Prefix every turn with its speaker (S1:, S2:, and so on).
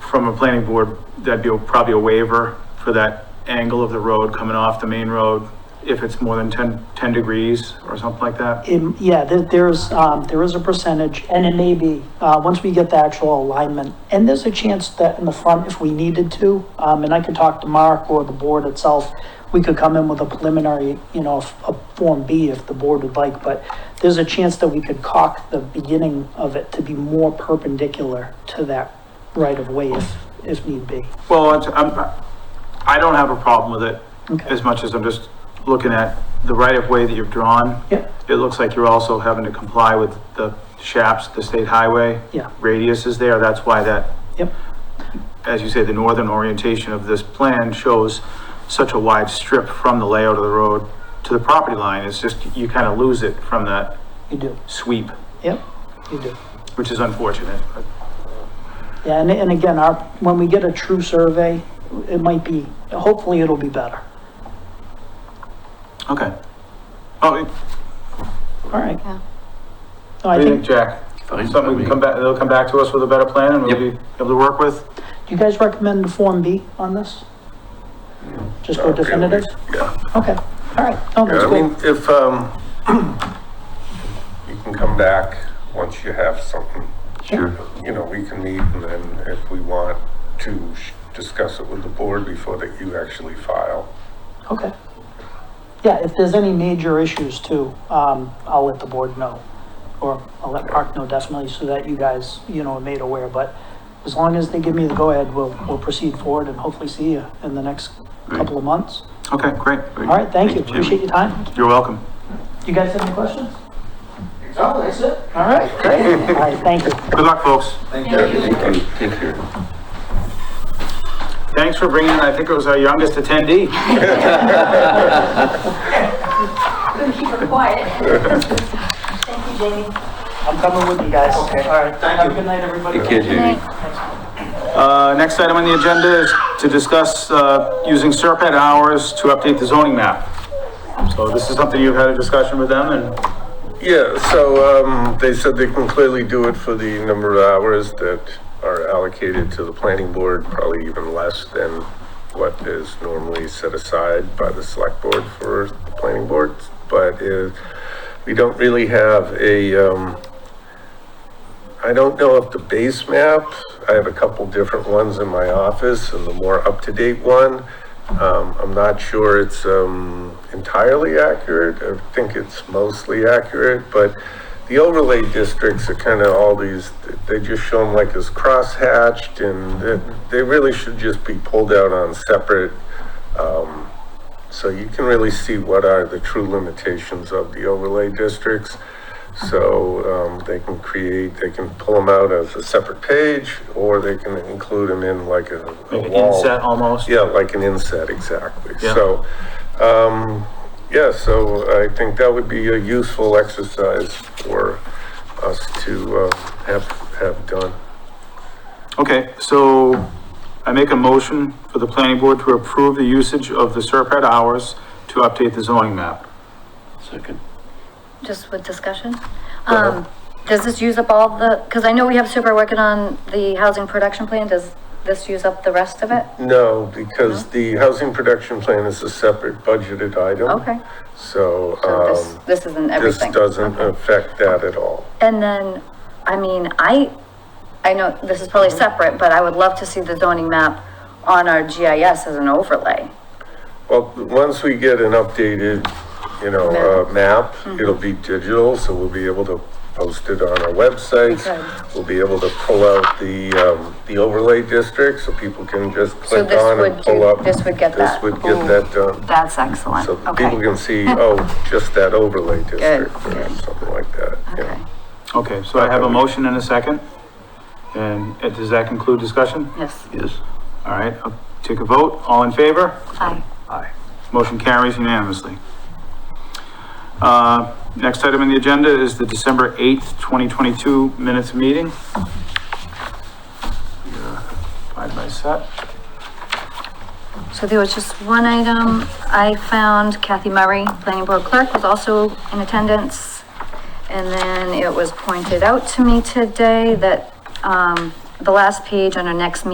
S1: from a planning board, that'd be a- probably a waiver for that angle of the road coming off the main road, if it's more than 10, 10 degrees or something like that.
S2: Um, Yeah, there, there's, um, there is a percentage, and it may be, uh, once we get the actual alignment, and there's a chance that in the front, if we needed to, um, and I could talk to Mark or the board itself, we could come in with a preliminary, you know, f- a Form B if the board would like, but there's a chance that we could cock the beginning of it to be more perpendicular to that right of way if, if need be.
S1: Well, it's- I'm, I don't have a problem with it
S2: Okay.
S1: as much as I'm just looking at the right of way that you've drawn.
S2: Yeah.
S1: It looks like you're also having to comply with the SHAPS, the state highway.
S2: Yeah.
S1: Radius is there. That's why that
S2: Yep,
S1: as you say, the northern orientation of this plan shows such a wide strip from the layout of the road to the property line, it's just, you kind of lose it from that
S2: you do,
S1: sweep,
S2: yep, you do.
S1: which is unfortunate.
S2: Yeah, and, and again, our, when we get a true survey, it might be, hopefully it'll be better.
S1: Okay. Oh, what
S2: All right.
S3: Yeah.
S2: No, I
S1: do you think,
S2: think,
S1: Jack?
S4: Fine,
S1: Something we
S4: I
S1: can come back, they'll come back to us with a better plan and we'll be
S4: Yep.
S1: able to work with?
S2: do you guys recommend the Form B on this? Just go definitive?
S5: Uh, Yeah,
S2: Okay, all right. Oh,
S5: yeah,
S2: that's
S5: I mean,
S2: cool.
S5: if, um, you can come back once you have something,
S4: Sure.
S5: you know, we can meet and then if we want to sh- discuss it with the board before that you actually file.
S2: Okay. Yeah, if there's any major issues too, um, I'll let the board know. Or I'll let Park know definitely so that you guys, you know, are made aware. But as long as they give me the go-ahead, we'll, we'll proceed forward and hopefully see you in the next couple of months.
S1: Okay, great.
S2: All right, thank you.
S4: Thank you.
S2: Appreciate your time.
S1: You're welcome.
S2: You guys have any questions? No, that's it. All right, great. All right, thank you.
S1: Good luck, folks.
S4: Thank you. Take care.
S1: Thanks for bringing, I think it was our youngest attendee.
S3: Couldn't keep her quiet. Thank you, Jamie.
S2: I'm coming with you guys. Okay. All right, have a good night, everybody.
S4: Take care, Jamie.
S1: Uh, next item on the agenda is to discuss, uh, using Serpent hours to update the zoning map. So this is something you've had a discussion with them and,
S5: Yeah, so, um, they said they can clearly do it for the number of hours that are allocated to the planning board, probably even less than what is normally set aside by the select board for the planning board. But, uh, we don't really have a, um, I don't know if the base map, I have a couple different ones in my office and the more up-to-date one. Um, I'm not sure it's, um, entirely accurate. I think it's mostly accurate, but the overlay districts are kind of all these, they just show them like as crosshatched and they- they really should just be pulled out on separate. Um, so you can really see what are the true limitations of the overlay districts. So um, they can create, they can pull them out as a separate page, or they can include them in like a a
S1: like an
S5: wall.
S1: inset almost.
S5: Yeah, like an inset, exactly.
S1: Yeah.
S5: So, um, yeah, so I think that would be a useful exercise for us to uh, have, have done.
S1: Okay, so I make a motion for the planning board to approve the usage of the Serpent hours to update the zoning map.
S4: Second.
S3: Just with discussion.
S5: Uh-huh.
S3: Um, does this use up all the, because I know we have super working on the housing production plan. Does this use up the rest of it?
S5: No, because the housing production plan is a separate budgeted item.
S3: Okay.
S5: So,
S3: So
S5: Mm-hmm.
S3: this,
S5: um,
S3: this isn't
S5: this
S3: everything.
S5: doesn't affect that at all.
S3: And then, I mean, I, I know this is
S5: Mm-hmm.
S3: probably separate, but I would love to see the zoning map on our GIS as an overlay.
S5: Well, once we get an updated, you know, uh, map,
S3: Mm-hmm.
S5: it'll be digital, so we'll be able to post it on our websites.
S3: Good.
S5: We'll be able to pull out the, um, the overlay district, so people can just click
S3: this
S5: on
S3: would
S5: and
S3: do-
S5: pull up.
S3: this would get that.
S5: This would get
S3: Ooh.
S5: that done,
S3: That's excellent.
S5: so
S3: Okay.
S5: people can see, oh, just that overlay district, or
S3: good.
S5: something like that,
S3: Okay.
S5: yeah.
S1: Okay, so I have a motion and a second. And uh, does that conclude discussion?
S3: Yes.
S4: Yes.
S1: All right, I'll take a vote. All in favor?
S3: Aye.
S1: Aye. Motion carries unanimously. Uh, Next item on the agenda is the December 8th, 2022 minutes meeting. Yeah, Five by set.
S3: So there was just one item I found, Kathy Murray, planning board clerk, was also in attendance. And then it was pointed out to me today that, um, the last page on our next meeting